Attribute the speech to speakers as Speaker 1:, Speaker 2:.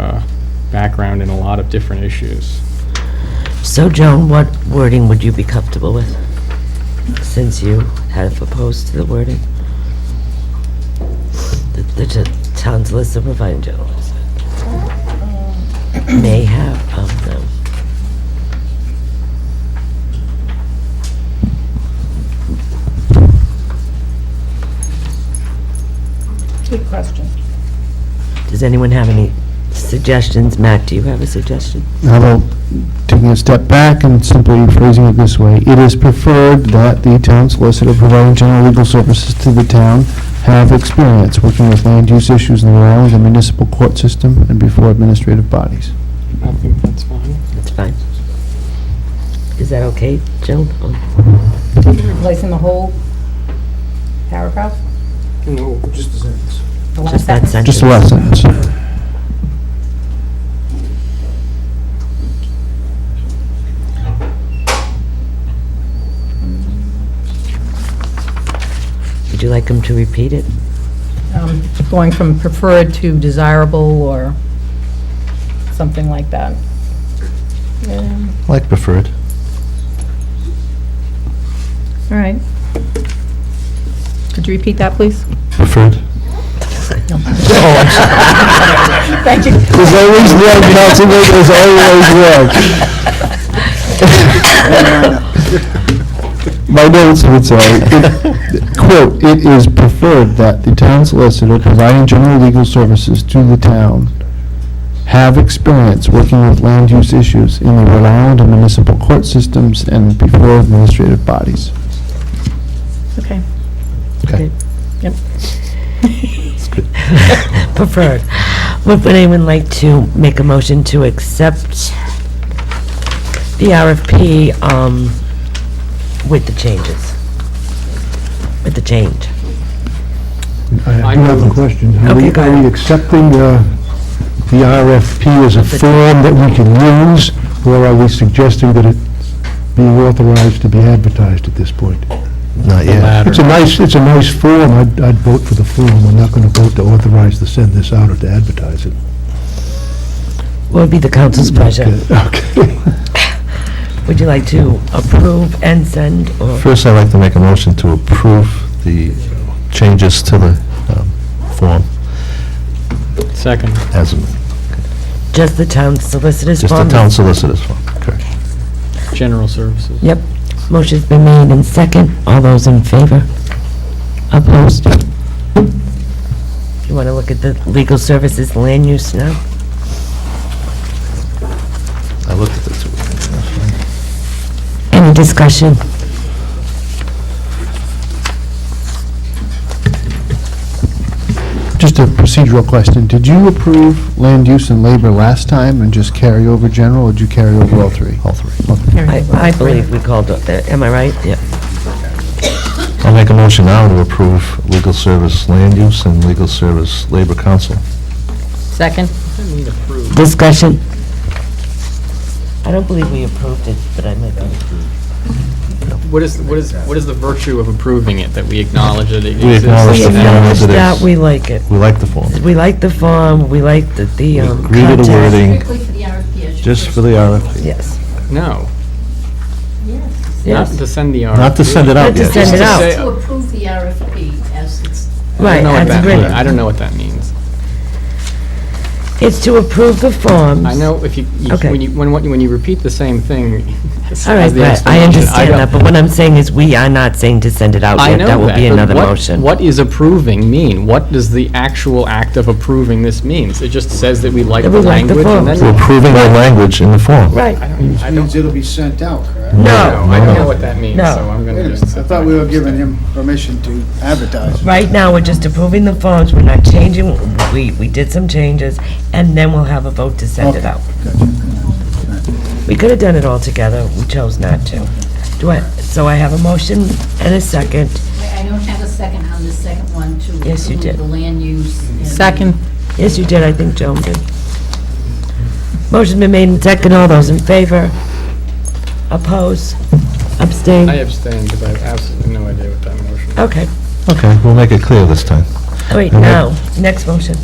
Speaker 1: uh, background in a lot of different issues.
Speaker 2: So Joan, what wording would you be comfortable with, since you had opposed to the wording? The- The t- town's list of providing general services may have of them.
Speaker 3: Good question.
Speaker 2: Does anyone have any suggestions? Matt, do you have a suggestion?
Speaker 4: How about taking a step back and simply phrasing it this way? It is preferred that the town solicitor providing general legal services to the town have experience working with land use issues in Rhode Island, the municipal court system, and before administrative bodies.
Speaker 1: I think that's fine.
Speaker 2: That's fine. Is that okay, Joan?
Speaker 3: Replacing the whole paragraph?
Speaker 1: No, just as
Speaker 3: the last
Speaker 2: Just that
Speaker 3: sentence?
Speaker 2: sentence?
Speaker 4: Just the last sentence.
Speaker 2: Would you like him to repeat it?
Speaker 3: Um, Going from preferred to desirable or something like that. Yeah,
Speaker 5: Like preferred.
Speaker 3: All right. Could you repeat that, please?
Speaker 5: Preferred.
Speaker 3: Thank you.
Speaker 4: There's always work, Council, there's always work. My notes would say, it- quote, "It is preferred that the town solicitor providing general legal services to the town have experience working with land use issues in the Rhode Island and municipal court systems and before administrative bodies."
Speaker 3: Okay.
Speaker 4: Okay.
Speaker 3: Yep.
Speaker 2: Preferred. Would would anyone like to make a motion to accept the RFP um, with the changes? With the change?
Speaker 1: I
Speaker 6: I do have a question. Are
Speaker 2: Okay,
Speaker 6: we-
Speaker 2: go
Speaker 6: Are
Speaker 2: ahead.
Speaker 6: we accepting uh, the RFP as a form that we can use, or are we suggesting that it be authorized to be advertised at this point?
Speaker 5: Not yet.
Speaker 6: It's a nice, it's a nice form. I'd I'd vote for the form. We're not going to vote to authorize to send this out or to advertise it.
Speaker 2: What would be the council's pleasure?
Speaker 6: Okay.
Speaker 2: Would you like to approve and send, or
Speaker 5: First, I'd like to make a motion to approve the changes to the um, form
Speaker 1: Second.
Speaker 5: as,
Speaker 2: just the town solicitor's
Speaker 5: just
Speaker 2: form?
Speaker 5: the town solicitor's form. Correct.
Speaker 1: General services.
Speaker 2: Yep. Motion's been made and second. All those in favor? Opposed? You want to look at the legal services land use now?
Speaker 5: I looked at the two.
Speaker 2: Any discussion?
Speaker 4: Just a procedural question, did you approve land use and labor last time and just carry over general, or did you carry over all three?
Speaker 5: All three.
Speaker 2: I, I believe we called it that, am I right? Yeah.
Speaker 5: I'll make a motion now to approve legal service land use and legal service labor council.
Speaker 3: Second?
Speaker 2: Discussion? I don't believe we approved it, but I might be.
Speaker 1: What is, what is, what is the virtue of approving it, that we acknowledge that it exists?
Speaker 5: We acknowledge
Speaker 2: We
Speaker 5: the
Speaker 1: and that-
Speaker 5: form as
Speaker 2: acknowledge
Speaker 5: it
Speaker 2: that,
Speaker 5: is.
Speaker 2: we like it.
Speaker 5: We like the form.
Speaker 2: We like the form, we like the, the,
Speaker 5: We
Speaker 2: um.
Speaker 5: agree to the
Speaker 2: content.
Speaker 5: wording,
Speaker 7: Strictly for the RFP issue.
Speaker 5: just for the RFP.
Speaker 2: Yes,
Speaker 1: No,
Speaker 7: Yes.
Speaker 1: not
Speaker 2: yes.
Speaker 1: to send the RFP.
Speaker 5: Not to send it
Speaker 2: Not
Speaker 5: out
Speaker 2: to
Speaker 5: yet.
Speaker 2: send
Speaker 1: Just
Speaker 2: it
Speaker 1: to
Speaker 2: out.
Speaker 1: say-
Speaker 7: To approve the RFP as it's
Speaker 1: I
Speaker 2: Right,
Speaker 1: don't know what
Speaker 2: that's
Speaker 1: that means.
Speaker 2: great.
Speaker 1: I don't know what that means.
Speaker 2: It's to approve the forms.
Speaker 1: I know if you, you-
Speaker 2: Okay.
Speaker 1: when you, when, what- when you repeat the same thing as
Speaker 2: All right,
Speaker 1: as the
Speaker 2: but I
Speaker 1: explanation,
Speaker 2: understand
Speaker 1: don't-
Speaker 2: that, but what I'm saying is we are not saying to send it out
Speaker 1: I
Speaker 2: yet.
Speaker 1: know
Speaker 2: That will be
Speaker 1: but
Speaker 2: another
Speaker 1: what-
Speaker 2: motion.
Speaker 1: What is approving mean? What does the actual act of approving this means? It just says that we like
Speaker 2: That
Speaker 1: the
Speaker 2: we like the
Speaker 1: language and
Speaker 2: forms.
Speaker 1: then.
Speaker 5: We're approving the language in the form.
Speaker 2: Right,
Speaker 1: I don't,
Speaker 8: it'll be sent out, correct?
Speaker 2: no,
Speaker 1: I don't know what that means, so
Speaker 2: No.
Speaker 1: I'm
Speaker 8: Wait a
Speaker 1: gonna
Speaker 8: minute,
Speaker 1: just.
Speaker 8: I thought we were giving him permission to advertise.
Speaker 2: right now, we're just approving the forms, we're not changing, we, we did some changes, and then we'll have a vote to send it out. We could have done it all together, we chose not to. Do I, so I have a motion and a second.
Speaker 7: I don't have a second on the second one to
Speaker 2: Yes, you did.
Speaker 7: approve the land use. and-
Speaker 3: Second?
Speaker 2: Yes, you did, I think Joan did. Motion been made and second, all those in favor? Oppose? Abstain?
Speaker 1: I abstain because I have absolutely no idea what that motion is.
Speaker 2: Okay,
Speaker 5: Okay, we'll make it clear this time.
Speaker 2: wait, now, next motion.